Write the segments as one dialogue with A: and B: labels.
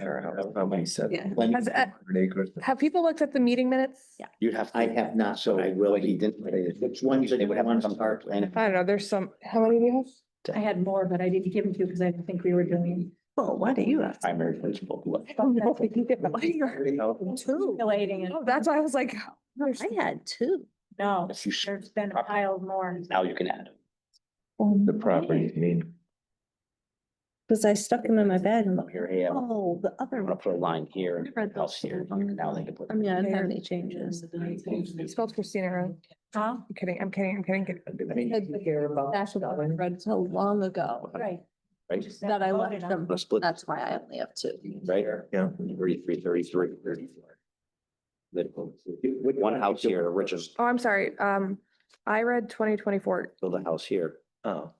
A: There, I don't know how many said.
B: Yeah.
C: When
D: Has, uh,
A: 100 acres.
D: have people looked at the meeting minutes?
B: Yeah.
C: you'd have, to-
E: I have not,
C: so
E: so
C: I
E: I
C: will
E: will,
C: be-
E: he didn't say this.
C: which ones are
E: They
C: the
E: would have
C: ones
E: some-
C: on our plan?
D: I don't know, there's some, how many do you have?
B: I had more, but I didn't give them to you because I didn't think we were doing.
E: Well, why do you have? Primary principal. what?
B: Oh, Two. Relating.
D: Oh, that's why I was like, there's-
B: I had two. No,
C: If you sh-
B: there's been a pile more.
C: Now you can add.
A: The property, I mean,
F: Cause I stuck them in my bag and
C: them. Here, hey, um, I'm
F: oh, the other
C: gonna
F: one.
C: put a line here,
F: I read
C: else
F: those
C: here,
F: down.
C: now they can put.
F: I mean, I didn't have any changes.
D: I spelled Christina wrong.
B: Huh?
D: I'm kidding, I'm kidding, I'm kidding.
A: I mean,
F: That's what I read so long ago
B: Right.
C: Right.
F: that I left them.
C: Let's split,
F: That's why I only have two.
C: right?
A: yeah.
C: Thirty-three, thirty-three, thirty-four. Then One house here, original,
D: Oh, I'm sorry. Um, I read twenty twenty-four.
C: build a house here,
A: Oh,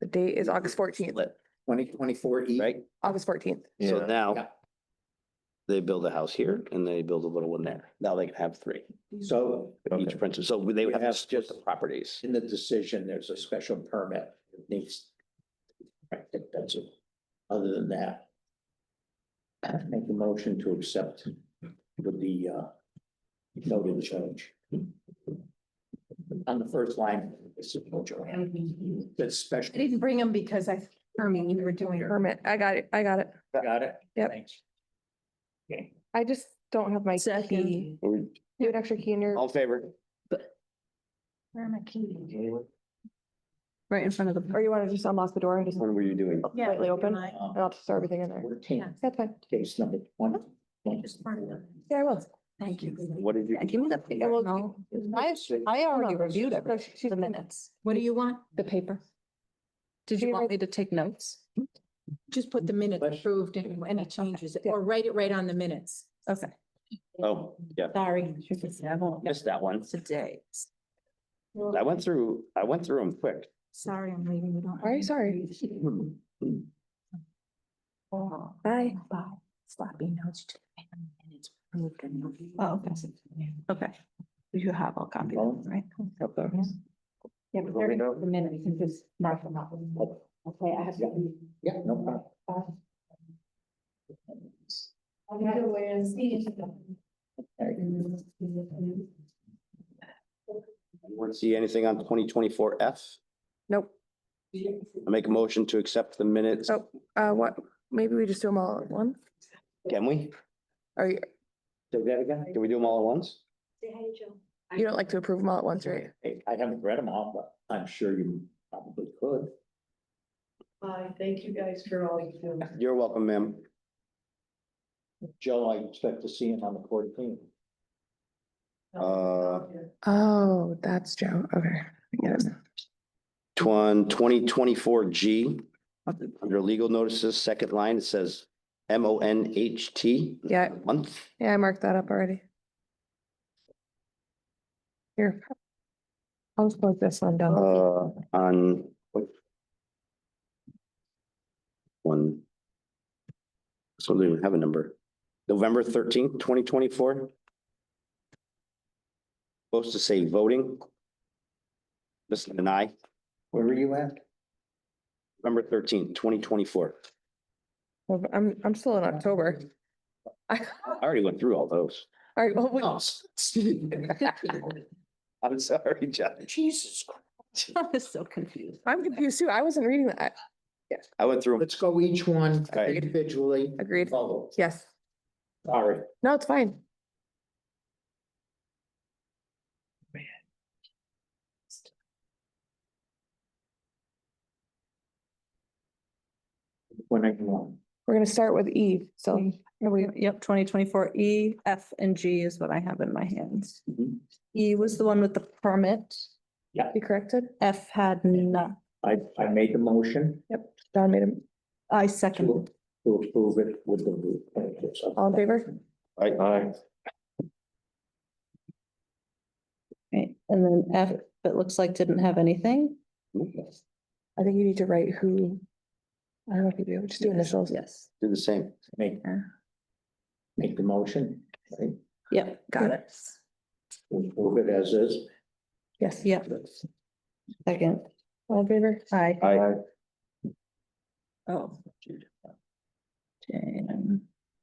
D: The date is August fourteenth,
C: split,
E: Twenty twenty-four E.
C: right?
D: August fourteenth.
C: So
A: Yeah.
C: now
E: Yeah.
C: they build a house here and they build a little one there. Now they can have three,
E: So
C: each
A: okay.
C: principal. So they would have to
E: Yes,
C: split
E: just-
C: the properties.
E: in the decision, there's a special permit that needs. Right, that- that's it. Other than that. Make a motion to accept with the uh noted change. On the first line, it's a no Joanne. That's
B: I
E: special.
B: didn't bring them because I, I mean, you were doing.
D: Permit, I got it, I got it.
E: Got it?
D: Yep.
E: Thanks.
D: I just don't have my key.
F: Second.
C: All
D: You have an extra key in your,
C: in favor?
B: Where am I keeping?
F: Right in front of the.
D: or you want to just unlock the door and just
C: When were you doing?
B: Yeah,
D: slightly open? And
B: mine.
E: Uh,
D: I'll just throw everything in there.
E: Fourteen,
D: That's fine.
E: case number one.
B: Just part of it.
D: Yeah, I will.
F: Thank you.
C: What did you?
F: Yeah, give me the paper.
D: will-
F: No.
D: I, I already reviewed
F: every-
D: it. She's
F: The
D: been-
F: minutes,
B: What do you want?
F: the paper. Did
D: We
F: you want
D: read-
F: me to take notes?
B: Just put the minutes
E: Question.
B: approved and any changes, or write it right on the minutes.
F: Okay.
C: Oh, yeah,
B: Sorry.
C: missed that one.
F: Today.
C: I went through, I went through them quick.
B: Sorry, I'm leaving. We don't.
D: Are you sorry?
B: Oh,
D: Bye.
B: Bye. Sloppy notes. to the minutes approved and not-
F: Oh, okay. Okay. You have all copies, right?
B: Yeah, but
A: Well, we
B: they're
A: know-
B: the minute, you can just mark them up. Okay, I have to.
E: Yeah, no problem.
C: Want to see anything on twenty twenty-four F?
D: Nope.
C: I make a motion to accept the minutes.
D: Oh. Uh, what, maybe we just do them all at once?
C: Can we?
D: Or you,
E: Do that again?
C: Can we do them all at once?
D: you don't like to approve them all at once, right?
E: Hey, I haven't read them all, but I'm sure you probably could.
G: Bye. Thank you guys for all you do.
C: You're welcome, ma'am.
E: Joe, I expect to see him on the fourteenth.
C: Uh,
D: Oh, that's Joe. Okay. I get it.
C: Twen- 2024 G, under legal notices, second line, it says M O N H T.
D: Yeah.
C: Month.
D: Yeah, I marked that up already. Here. I'll just put this one down.
C: Uh, on. what? One. This one doesn't even have a number. November thirteenth, twenty twenty-four. Supposed to say voting. This is an I,
E: Where were you at?
C: November thirteenth, twenty twenty-four.
D: Well, I'm, I'm still in October. All
C: I already went through all those.
D: right, well, we-
C: I'm sorry, Judge.
E: Jesus. Christ.
F: I was so confused.
D: I'm confused too. I wasn't reading that.
C: I went through. 'em.
E: Let's go each one
C: Right.
E: individually.
D: Agreed.
E: Follow.
D: Yes.
E: All right.
D: No, it's fine.
E: When I go
D: We're gonna start with Eve. So,
F: Yep, twenty twenty-four E, F, and G is what I have in my hands.
E: on.
F: E was the one with the permit.
D: you corrected?
F: F had none.
E: I, I made the motion
D: Don made him,
F: I second.
E: to, to approve it with the.
D: all in favor?
C: I-
A: Aye.
F: Right, and then F, it looks like didn't have anything.
D: I think you need to write who. I don't know if you do, just do initials.
F: Yes.
C: Do the same.
E: Make, make the motion, right?
F: Yep, got it.
E: Approve it as is.
D: Yes.
F: Yep, second.
D: All in favor?
F: Aye.
C: I,
F: Oh. Jane.